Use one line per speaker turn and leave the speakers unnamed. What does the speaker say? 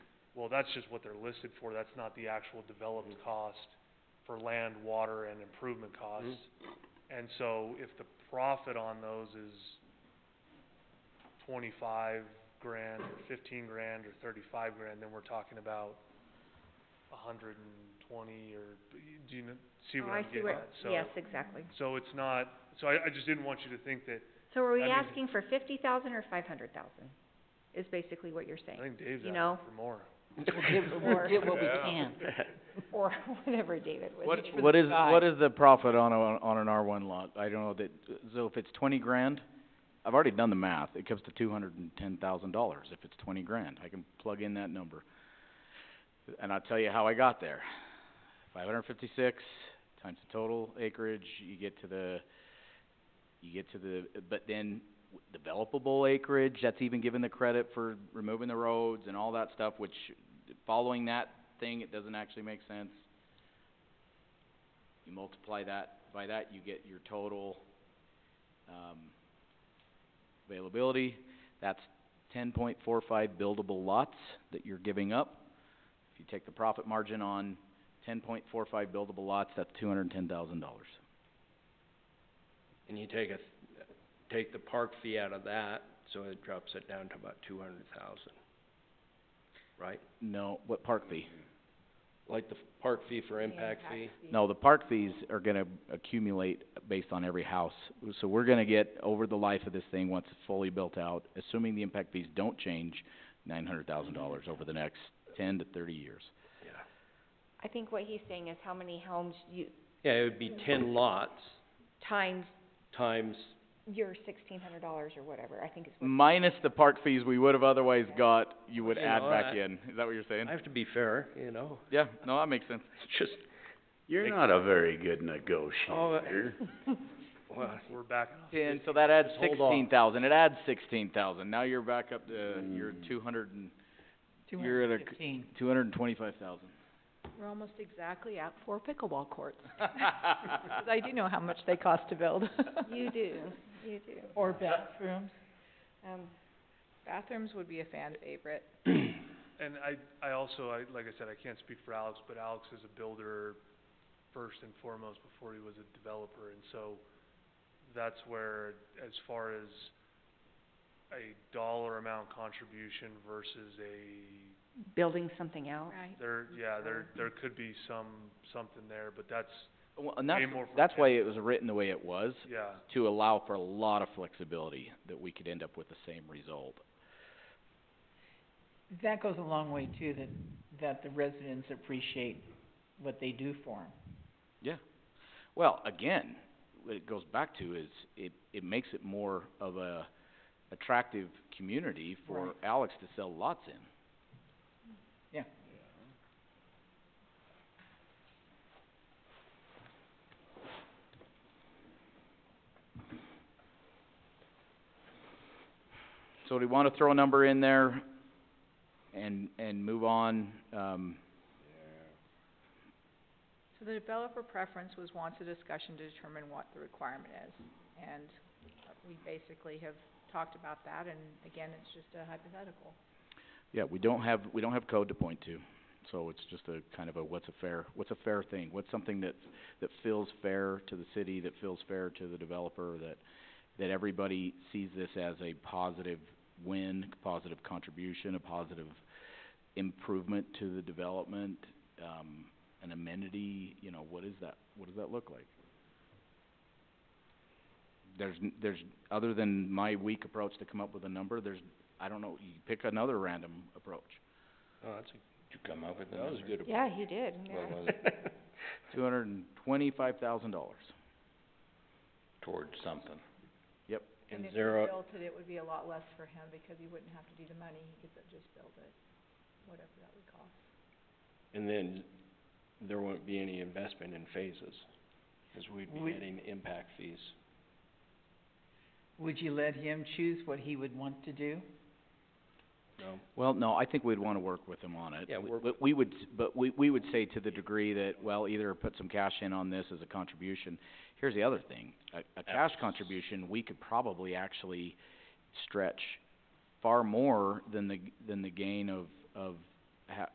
Well, that's just what they're listed for, that's not the actual developed cost for land, water, and improvement costs. And so if the profit on those is twenty-five grand, or fifteen grand, or thirty-five grand, then we're talking about a hundred and twenty, or, do you kn- see
Oh,
what
I
I'm getting
where-
at? So-
Yes, exactly.
So it's not, so I, I just didn't want you to think that,
So are we
I mean-
asking for fifty thousand or five hundred thousand, is basically what you're
I
saying,
think Dave's
You know?
asking for more.
We'll give,
Or-
we'll give what we
Yeah.
can.
or whatever David was.
What-
saying.
What is, what is the profit on a, on an R one lot? I don't know that, so if it's twenty grand, I've already done the math, it comes to two hundred and ten thousand dollars if it's twenty grand, I can plug in that number. And I'll tell you how I got there. Five hundred and fifty-six times the total acreage, you get to the, you get to the, but then w- developable acreage, that's even given the credit for removing the roads and all that stuff, which, following that thing, it doesn't actually make sense. You multiply that, by that, you get your total, um, availability. That's ten point four five buildable lots that you're giving up. If you take the profit margin on ten point four five buildable lots, that's two hundred and ten thousand dollars.
And you take a, take the park fee out of that, so it drops it down to about two hundred thousand, right?
No, what park fee?
Like the f- park fee for impact fee?
No, the park fees are gonna accumulate based on every house. So we're gonna get, over the life of this thing, once it's fully built out, assuming the impact fees don't change, nine hundred thousand dollars over the next ten to thirty years.
Yeah.
I think what he's saying is how many homes you,
Yeah, it would be ten lots
times
times,
your sixteen hundred dollars or whatever, I think is what.
Minus the park fees we would've otherwise got, you would
You
add
know,
back
I-
in. Is that what you're saying?
I have to be fair, you know,
Yeah, no, that makes sense.
it's just,
You're not a very good negotiator.
well,
We're backing off.
And so that adds
Just hold on.
sixteen thousand, it adds sixteen thousand, now you're back up to, you're two hundred and, you're at a, two hundred and twenty-five thousand.
We're almost exactly at four pickleball courts, 'cause I do know how much they cost to build.
Mm.
You do, you do.
Or bathrooms.
Um,
Bathrooms would be a fan favorite.
And I, I also, I, like I said, I can't speak for Alex, but Alex is a builder first and foremost before he was a developer, and so that's where, as far as a dollar amount contribution versus a,
building something out.
Right.
there, yeah, there, there could be some, something there, but that's,
Well, and
Way
that's,
more for
that's why it was written the way it was,
yeah.
to allow for a lot of flexibility, that we could end up with the same result.
That goes a long way too, that, that the residents appreciate what they do for them.
Yeah. Well, again, what it goes back to is, it, it makes it more of a attractive community for
Right.
Alex to sell lots in. So do we wanna throw a number in there and, and move on, um,
So the developer preference was wants a discussion to determine what the requirement is. And uh, we basically have talked about that, and again, it's just a hypothetical.
Yeah, we don't have, we don't have code to point to, so it's just a kind of a what's a fair, what's a fair thing? What's something that, that feels fair to the city, that feels fair to the developer, that, that everybody sees this as a positive win, positive contribution, a positive improvement to the development, um, an amenity, you know, what is that, what does that look like? There's, n- there's, other than my weak approach to come up with a number, there's, I don't know, you pick another random approach.
oh, that's a, you come up with that was a good
Yeah, he did, yeah.
Two hundred and twenty-five thousand dollars.
Towards something.
Yep.
And
if he
zero,
built it, it would be a lot less for him because he wouldn't have to do the money, he could just build it, whatever that would cost.
and then there won't be any investment in phases, cause we'd be
We-
getting impact fees.
Would you let him choose what he would want to do?
No,
Well, no, I think we'd wanna work with them on it.
Yeah,
W-
work-
But we would, s- but we, we would say to the degree that, well, either put some cash in on this as a contribution. Here's the other thing, a, a cash
Abs-
contribution, we could probably actually stretch far more than the, g- than the gain of, of